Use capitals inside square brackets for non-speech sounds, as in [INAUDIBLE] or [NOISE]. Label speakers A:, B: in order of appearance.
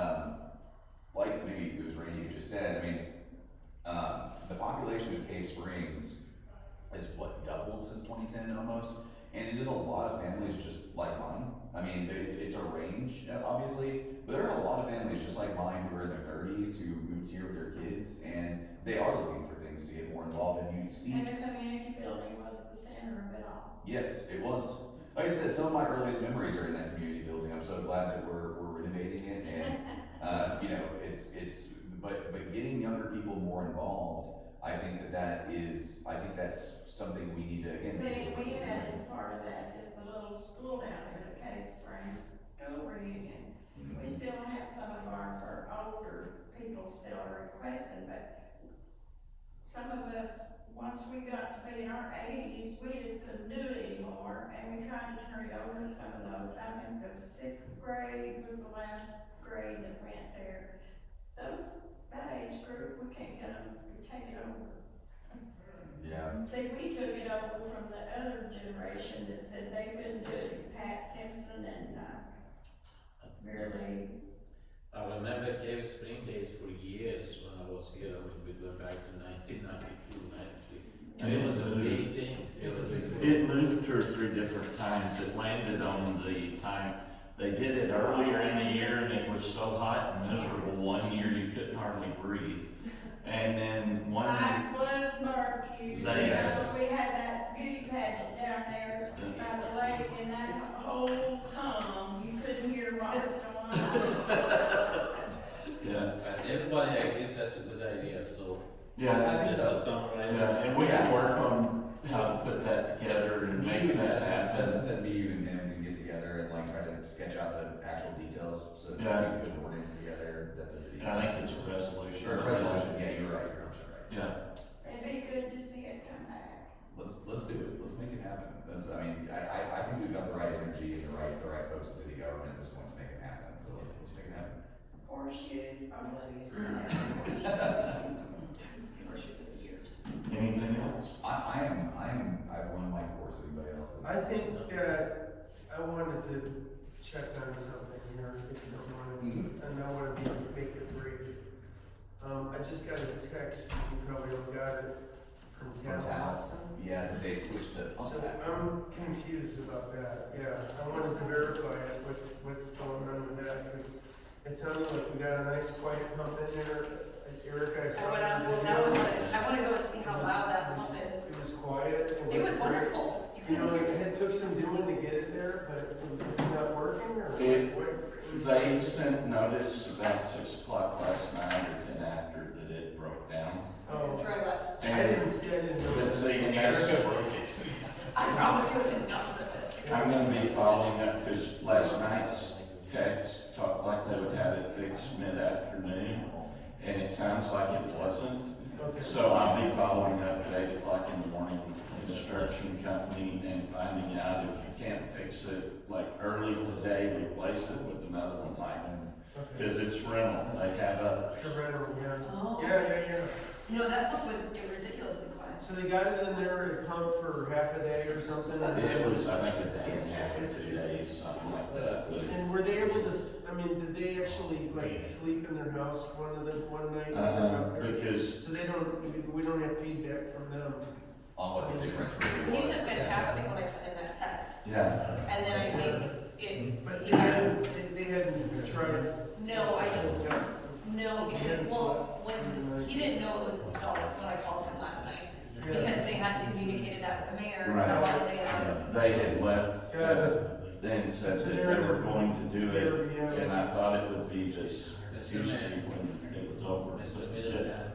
A: um, um, Case Springs is what doubled since 2010 almost, and it is a lot of families just like mine. I mean, they- it's it's a range uh, obviously, but there are a lot of families just like mine who are in their 30s who moved here with their kids, and they are looking for things to get more involved. And you see
B: And the community building was the center of it all.
A: Yes, it was. Like I said, some of my earliest memories are in that community building. I'm so glad that we're, we're renovating it and, uh, you know, it's, it's, but, but getting younger people more involved, I think that that is, I think that's something we need to,
B: [LAUGHS]
A: again.
B: See, we had as part of that is the little school down there, the Case Springs School Reunion.
A: Mhm.
B: We still have some of our, our older people still are requesting, but some of us, once we got to be in our eighties, we just couldn't do it anymore, and we tried to turn it over to some of those. I think the sixth grade was the last grade that went there. Those, that age group, we can't get them, we take it over.
A: Yeah,
B: See, we took it over from the other generation that said they couldn't do it, Pat Simpson and, uh, really,
C: I remember Cave Spring days for years when I was here, I mean, we go back to nineteen ninety-two, ninety-three. And it was a big thing, it was a big
D: It moved two or three different times. It landed on the time, they did it earlier in the year and it was so hot and miserable one year you couldn't hardly breathe. And then one,
B: Lights was murky. You know,
D: Yes.
B: We had that beauty pageant down there by the lake and that was whole hum, you couldn't hear what was going on.
D: yeah,
C: But everybody, I guess that's a good idea, so
D: yeah,
A: I think
C: this
A: so.
C: is summarized.
D: yeah. And we can work on how to put that together and
A: me,
D: make
A: and
D: that
A: Justin,
D: happen.
A: Justin said me, you and him can get together and like try to sketch out the actual details so that we
D: Yeah.
A: can put an ordinance together that the city.
D: And I think it's a resolution.
A: Or a resolution, yeah, you're right, you're absolutely right.
D: Yeah,
B: It'd be good to see it come back.
A: Let's, let's do it, let's make it happen, that's, I mean, I, I, I think we've got the right energy and the right, the right folks in city government at this point to make it happen, so let's, let's make it happen.
B: Horseshoes, I'm gonna use Horseshoes of the years.
D: anything else?
A: I, I am, I am, I've run my course, anybody else?
E: I think, uh, I wanted to check on something here, if you don't mind.
A: Mm,
E: and I want to be, make it brief. Um, I just got a text, you probably all got it, from
A: From
E: Tal.
A: Tao, yeah, that they switched the pump
E: So um,
A: back.
E: I'm confused about that, yeah, I wanted to verify it, what's, what's going on with that, because it sounded like we got a nice quiet pump in there, Eric, I
F: I
E: saw. the
F: went up, Oh, well,
E: video.
F: now I wanna, I wanna go and see
E: It
F: how
E: was-
F: loud
E: it
F: that
E: was-
F: pump is.
E: It was quiet, it was.
F: It was
E: great.
F: wonderful. You
E: You
F: couldn't
E: know,
F: hear
E: it
F: it.
E: it took some doing to get it there, but is it not working, or
D: It-
E: what?
D: They sent notice about six o'clock last night or ten after that it broke down.
E: Oh,
F: Before I left.
E: I didn't see, I didn't know.
D: Let's see, and that's-
F: I promise you I did not touch that.
D: I'm gonna be following up, because last night's text talked like they would have it fixed mid-afternoon, and it sounds like it wasn't.
E: Okay.
D: So I'll be following up at eight o'clock in the morning with the construction company and finding out if you can't fix it, like early today, replace it with another one like,
E: Okay.
D: because it's rental, they have a,
E: It's a rental, yeah.
F: Oh.
E: Yeah, yeah, yeah.
F: No, that pump was ridiculously quiet.
E: So they got it in there at pump for half a day or something?
D: it was, I think, a day and a half or two days, something like that. but it's-
E: And were they able to, s- I mean, did they actually like sleep in their house one of the, one night? when they were
D: Uh,
E: up there?
D: because
E: So they don't, we- we don't have feedback from them?
A: On what the difference really
F: He
A: was.
F: said fantastic when I sent him that text.
D: yeah,
F: And then I think it,
E: But they hadn't, they- they hadn't tried?
F: no, I just,
E: Yes.
F: no, because, well, when, he didn't know it was installed when I called him last night.
E: Yeah.
F: Because they hadn't communicated that with the mayor,
D: Right.
F: how long they had.
D: uh, they had left,
E: Got
D: uh,
E: it.
D: then said that they were going to do it,
E: Yeah.
D: and I thought it would be this
C: It's a
D: Tuesday
C: man.
D: when it was over.
C: It's a
D: but
C: middle,
D: it-